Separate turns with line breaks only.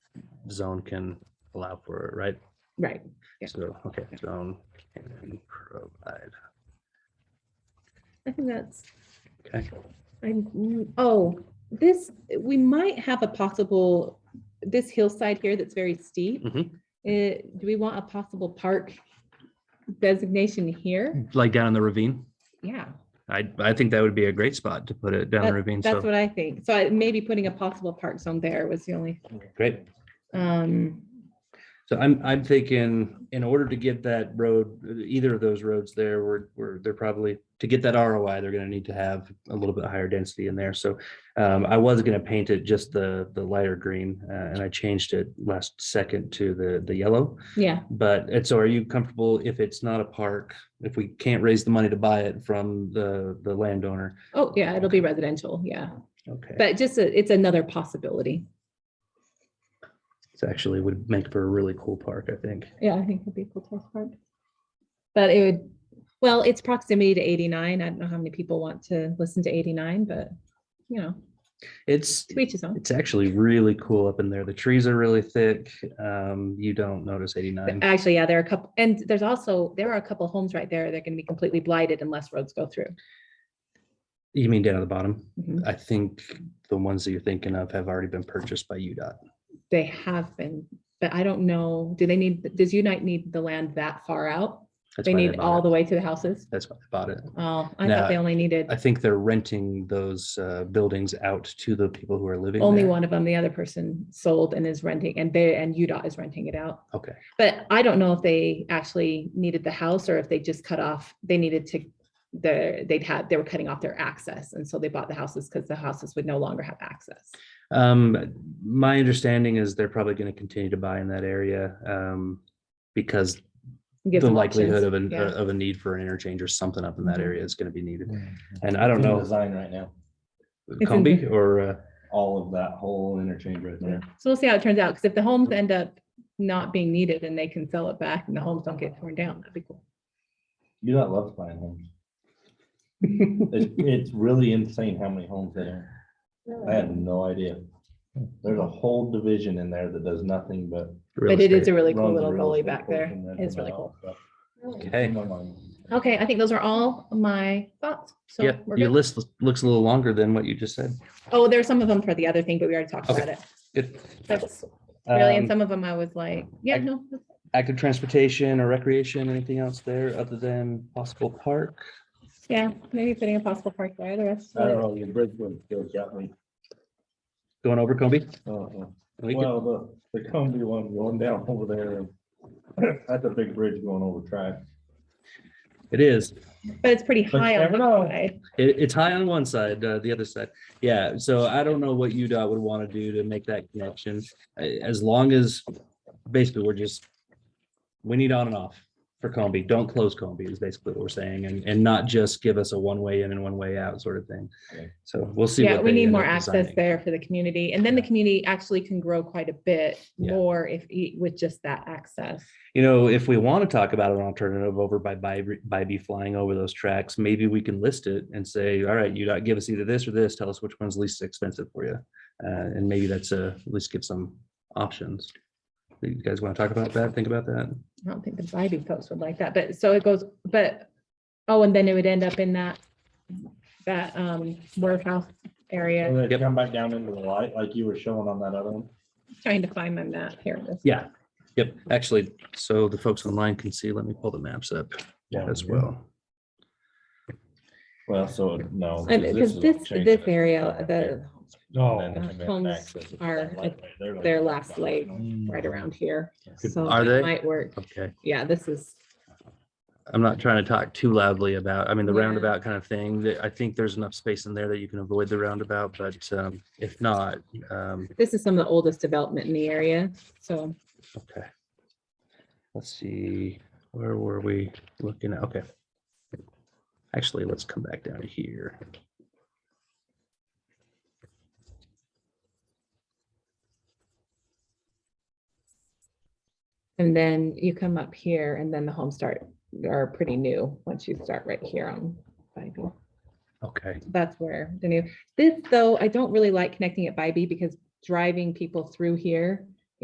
zone can allow for it, right?
Right. Yeah.
So, okay,
Yeah.
zone can provide,
I think that's,
okay,
I, oh, this, we might have a possible, this hillside here that's very steep.
Mhm.
eh, do we want a possible park designation here?
like down in the ravine.
Yeah,
I, I think that would be a great spot to put it down the ravine,
that's
so,
what I think. So I, maybe putting a possible park zone there was the only,
great.
um,
So I'm, I'm thinking, in order to get that road, either of those roads there, we're, we're, they're probably, to get that ROI, they're gonna need to have a little bit higher density in there, so. Um, I was gonna paint it just the, the lighter green, uh, and I changed it last second to the, the yellow.
yeah,
But, and so are you comfortable if it's not a park, if we can't raise the money to buy it from the, the landowner?
oh, yeah, it'll be residential, yeah.
Okay.
But just, a- it's another possibility.
It's actually would make for a really cool park, I think.
Yeah, I think it'd be a cool test park. But it would, well, it's proximity to eighty-nine. I don't know how many people want to listen to eighty-nine, but you know,
It's,
to each his own.
It's actually really cool up in there. The trees are really thick. Um, you don't notice
But uh,
89.
Actually, yeah, there are a couple, and there's also, there are a couple homes right there. They're gonna be completely blighted unless roads go through.
You mean down at the bottom?
Mhm.
I think the ones that you're thinking of have already been purchased by UDOT.
They have been, but I don't know, do they need, does Unite need the land that far out?
That's
They
why
need
bought
all
it.
the way to the houses?
That's why they bought it.
Oh, I
No,
thought they only needed
I think they're renting those uh, buildings out to the people who are living.
only
there.
one of them. The other person sold and is renting and they, and UDOT is renting it out.
Okay.
But I don't know if they actually needed the house or if they just cut off, they needed to, the, they'd had, they were cutting off their access. And so they bought the houses because the houses would no longer have access.
Um, my understanding is they're probably going to continue to buy in that area um, because
Gives
the
them
likelihood
options.
of, an, uh,
Yeah.
of a need for an interchange or something up in that
Mhm.
area is going to be needed.
Mm.
And I don't
It's in
know,
Design right now,
in
Combi
the-
or. Uh,
all of that whole interchange right there.
So we'll see how it turns out. Because if the homes end up not being needed and they can sell it back and the homes don't get torn down, that'd be cool.
You not love buying homes. It's, it's really insane how many homes there are. I had no idea. There's a whole division in there that does nothing but.
real
But it is
estate.
a really cool
runs
little
real
gully
estate
back there.
portion, that's
It's really
about
cool.
it, but-
Okay.
Never mind.
Okay, I think those are all my thoughts. So
Yeah,
we're
your
good.
list looks a little longer than what you just said.
Oh, there's some of them for the other thing, but we already talked
Okay.
about it.
Good.
That's really, and
Um,
some of them I was like, yeah,
I-
no, that's
Active transportation or recreation, anything else there other than possible park?
Yeah, maybe putting a possible park there, the rest.
I
of
don't
it-
know, your Bridgewood still got me.
Going over Combi?
Uh-uh.
We could-
Well, the, the Cumby one going down over there. That's a big bridge going over track.
It is.
But it's pretty
you
high on
never
the
know.
side.
It, it's high on one side, uh, the other side. Yeah, so I don't know what UDOT would want to do to make that connection. A- As long as, basically, we're just, we need on and off for Combi. Don't close Combi is basically what we're saying and, and not just give us a one-way in and one-way out sort of thing.
Yeah.
So we'll see.
Yeah,
what
we
they
need
end
more
up
access
designing.
there for the community. And then the community actually can grow quite a bit
Yeah.
more if, e- with just that access.
You know, if we want to talk about an alternative over by by by be flying over those tracks, maybe we can list it and say, all right, you don't give us either this or this. Tell us which one's least expensive for you. Uh, and maybe that's a, at least give some options. You guys want to talk about that? Think about that?
I don't think the Bybee folks would like that, but so it goes, but, oh, and then it would end up in that, that, um, warehouse
And
area,
then
Yep.
come back down into the light like you were showing on that other one.
Mm.
trying to find my map here. it is.
Yeah. Yep. Actually, so the folks online can see, let me pull the maps up
Yeah.
as well.
Well, so no.
And because
is
this,
changing
this
it.
area, the,
And then the
homes
access is
are
that light right there, like-
their last light. right around here, so
Are they?
it might work.
Okay.
Yeah, this is,
I'm not trying to talk too loudly about, I mean, the
Yeah.
roundabout kind of thing. that- I think there's enough space in there that you can avoid the roundabout, but um, if not, um,
this is some of the oldest development in the area, so.
Okay. Let's see, where were we looking at? Okay. Actually, let's come back down to here.
And then you come up here and then the homes start, are pretty new, once you start right here on Bybee.
Okay,
That's where the new, this though, I don't really like connecting at Bybee because driving people through here